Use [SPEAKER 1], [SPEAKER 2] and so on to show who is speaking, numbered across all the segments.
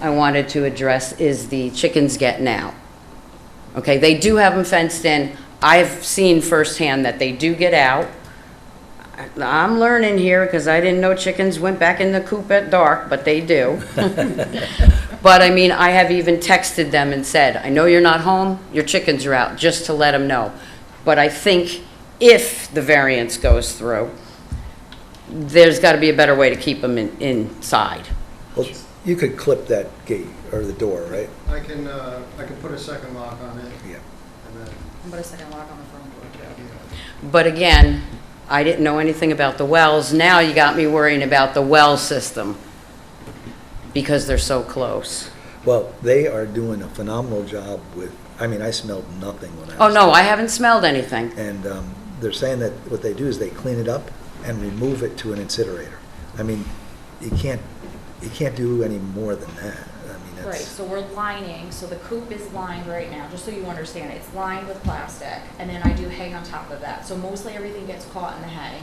[SPEAKER 1] I wanted to address is the chickens getting out. Okay, they do have them fenced in. I've seen firsthand that they do get out. I- I'm learning here because I didn't know chickens went back in the coop at dark, but they do. But I mean, I have even texted them and said, I know you're not home, your chickens are out, just to let them know. But I think if the variance goes through, there's got to be a better way to keep them in, inside.
[SPEAKER 2] Well, you could clip that gate or the door, right?
[SPEAKER 3] I can, uh, I can put a second lock on it,
[SPEAKER 2] Yeah.
[SPEAKER 3] and then,
[SPEAKER 4] Put a second lock on the front door too.
[SPEAKER 1] But again, I didn't know anything about the wells. Now you got me worrying about the well system because they're so close.
[SPEAKER 2] Well, they are doing a phenomenal job with, I mean, I smelled nothing when I
[SPEAKER 1] Oh,
[SPEAKER 2] was.
[SPEAKER 1] no, I haven't smelled anything.
[SPEAKER 2] And um, they're saying that what they do is they clean it up and remove it to an incinerator. I mean, you can't, you can't do any more than that. I mean,
[SPEAKER 4] Right,
[SPEAKER 2] that's,
[SPEAKER 4] so we're lining, so the coop is lined right now, just so you understand, it's lined with plastic, and then I do hay on top of that. So mostly everything gets caught in the hay.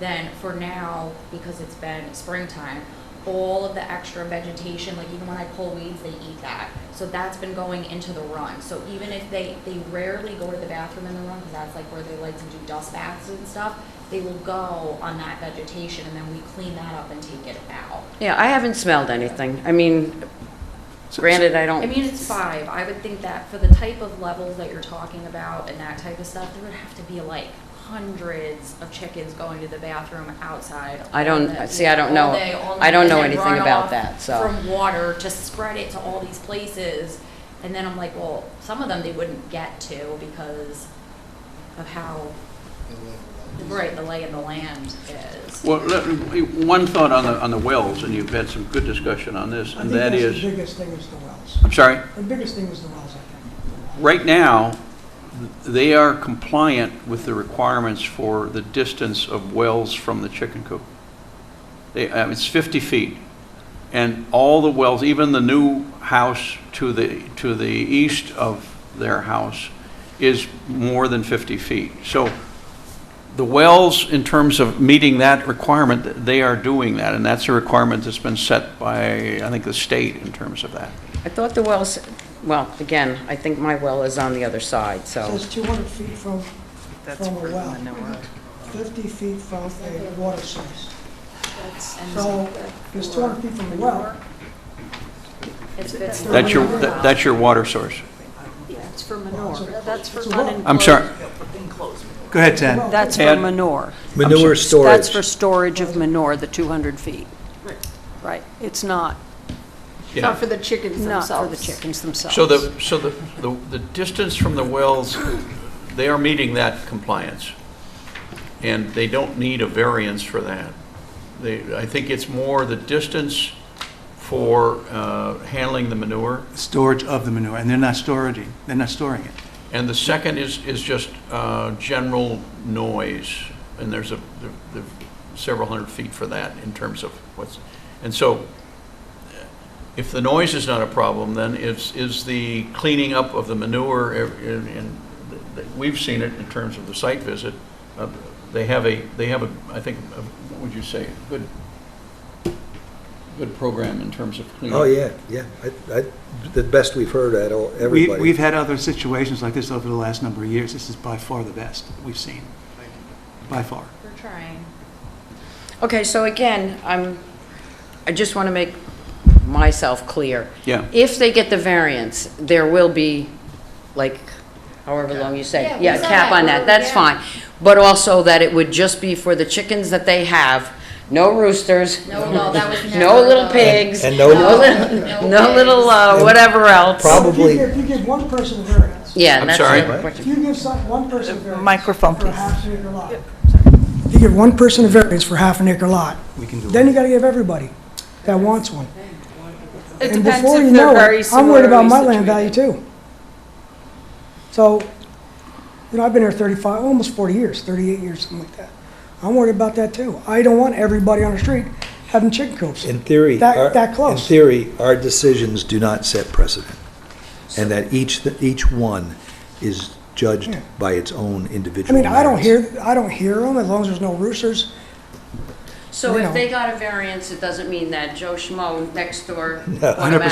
[SPEAKER 4] Then for now, because it's been springtime, all of the extra vegetation, like even when I pull weeds, they eat that. So that's been going into the run. So even if they, they rarely go to the bathroom in the run, because that's like where they like to do dust baths and stuff, they will go on that vegetation, and then we clean that up and take it out.
[SPEAKER 1] Yeah, I haven't smelled anything. I mean, granted, I
[SPEAKER 4] I
[SPEAKER 1] don't,
[SPEAKER 4] mean, it's five. I would think that for the type of levels that you're talking about and that type of stuff, there would have to be like hundreds of chickens going to the bathroom outside.
[SPEAKER 1] I
[SPEAKER 4] all
[SPEAKER 1] don't-
[SPEAKER 4] the-
[SPEAKER 1] see, I don't
[SPEAKER 4] all
[SPEAKER 1] know-
[SPEAKER 4] day, all
[SPEAKER 1] I don't
[SPEAKER 4] night,
[SPEAKER 1] know
[SPEAKER 4] and then
[SPEAKER 1] anything about
[SPEAKER 4] runoff
[SPEAKER 1] that, so.
[SPEAKER 4] From water to spread it to all these places. And then I'm like, well, some of them they wouldn't get to because of how, right, the lay of the land is.
[SPEAKER 5] Well, let- one thought on the, on the wells, and you've had some good discussion on this, and that
[SPEAKER 6] I think that's the
[SPEAKER 5] is,
[SPEAKER 6] biggest thing is the wells.
[SPEAKER 5] I'm sorry,
[SPEAKER 6] The biggest thing is the wells, I think.
[SPEAKER 5] right now, they are compliant with the requirements for the distance of wells from the chicken coop. They, uh, it's 50 feet, and all the wells, even the new house to the, to the east of their house is more than 50 feet. So the wells, in terms of meeting that requirement, they are doing that, and that's a requirement that's been set by, I think, the state in terms of that.
[SPEAKER 1] I thought the wells, well, again, I think my well is on the other side,
[SPEAKER 6] It
[SPEAKER 1] so.
[SPEAKER 6] Says 200 feet from, from a well, 50 feet from a water source.
[SPEAKER 4] And
[SPEAKER 6] So if it's 200 feet from a well,
[SPEAKER 4] it's- it's-
[SPEAKER 5] That's your, that- that's your water source.
[SPEAKER 7] Yeah, it's for
[SPEAKER 6] Well,
[SPEAKER 7] manure.
[SPEAKER 6] it's a-
[SPEAKER 7] That's for
[SPEAKER 6] it's a well.
[SPEAKER 7] unenclosed.
[SPEAKER 5] I'm sorry.
[SPEAKER 7] Enclosed manure.
[SPEAKER 8] Go ahead,
[SPEAKER 6] the
[SPEAKER 8] Ted.
[SPEAKER 6] well-
[SPEAKER 7] That's for
[SPEAKER 5] And-
[SPEAKER 7] manure.
[SPEAKER 2] manure
[SPEAKER 7] That's
[SPEAKER 2] storage.
[SPEAKER 7] for storage of manure, the 200 feet.
[SPEAKER 4] Right.
[SPEAKER 7] Right. It's not,
[SPEAKER 5] Yeah.
[SPEAKER 9] Not for the chickens
[SPEAKER 7] not
[SPEAKER 9] themselves.
[SPEAKER 7] for the chickens themselves.
[SPEAKER 5] So the, so the, the the distance from the wells, they are meeting that compliance, and they don't need a variance for that. They, I think it's more the distance for uh, handling the manure,
[SPEAKER 8] Storage of the manure, and they're not storing, they're not storing it.
[SPEAKER 5] and the second is, is just uh, general noise, and there's a, there- there are several hundred feet for that in terms of what's, and so if the noise is not a problem, then is, is the cleaning up of the manure, and, and th- we've seen it in terms of the site visit, uh, they have a, they have a, I think, a- what would you say, a good, good program in terms of cleaning.
[SPEAKER 2] Oh, yeah, yeah. I, I, the best we've heard at all,
[SPEAKER 8] We-
[SPEAKER 2] everybody.
[SPEAKER 8] We've had other situations like this over the last number of years. This is by far the best we've seen, by far.
[SPEAKER 4] We're trying.
[SPEAKER 1] Okay, so again, I'm, I just want to make myself clear.
[SPEAKER 5] Yeah.
[SPEAKER 1] If they get the variance, there will be, like, however long you
[SPEAKER 4] Yeah,
[SPEAKER 1] say,
[SPEAKER 4] we
[SPEAKER 1] yeah, a
[SPEAKER 4] saw
[SPEAKER 1] cap
[SPEAKER 4] that.
[SPEAKER 1] on that, that's
[SPEAKER 4] Yeah.
[SPEAKER 1] fine. But also that it would just be for the chickens that they have, no roosters,
[SPEAKER 4] No, no, that was never.
[SPEAKER 1] no little
[SPEAKER 4] the-
[SPEAKER 1] pigs,
[SPEAKER 2] And
[SPEAKER 1] no
[SPEAKER 2] no-
[SPEAKER 1] little,
[SPEAKER 4] No
[SPEAKER 1] no little, uh,
[SPEAKER 2] pigs.
[SPEAKER 1] whatever else.
[SPEAKER 2] Prob- Probably-
[SPEAKER 6] If you give- if you give one person a variance,
[SPEAKER 1] Yeah,
[SPEAKER 5] I'm
[SPEAKER 1] that's
[SPEAKER 5] sorry?
[SPEAKER 1] another
[SPEAKER 6] if
[SPEAKER 1] question.
[SPEAKER 6] you give some, one person a variance.
[SPEAKER 9] Uh, microphone,
[SPEAKER 6] For a
[SPEAKER 9] please.
[SPEAKER 6] half an acre lot. If you give one person a variance for half an acre lot,
[SPEAKER 8] We can do it.
[SPEAKER 6] then you gotta give everybody that wants one.
[SPEAKER 9] It
[SPEAKER 6] And
[SPEAKER 9] depends
[SPEAKER 6] before
[SPEAKER 9] if
[SPEAKER 6] you
[SPEAKER 9] they're
[SPEAKER 6] know
[SPEAKER 9] very
[SPEAKER 6] it, I'm worried about my
[SPEAKER 9] similarly
[SPEAKER 6] land value too. So, you know, I've been here 35, almost 40 years, 38 years, something like that. I'm worried about that too. I don't want everybody on the street having chicken coops.
[SPEAKER 2] In theory.
[SPEAKER 6] That-
[SPEAKER 2] our-
[SPEAKER 6] that close.
[SPEAKER 2] In theory, our decisions do not set precedent, and that each, each one is judged
[SPEAKER 6] Yeah.
[SPEAKER 2] by its own
[SPEAKER 6] I
[SPEAKER 2] individual
[SPEAKER 6] mean, I don't
[SPEAKER 2] merits.
[SPEAKER 6] hear, I don't hear them as long as there's no roosters.
[SPEAKER 1] So
[SPEAKER 6] you
[SPEAKER 1] if
[SPEAKER 6] know.
[SPEAKER 1] they got a variance, it doesn't mean that Joe Schmo next door
[SPEAKER 2] No.
[SPEAKER 1] automatically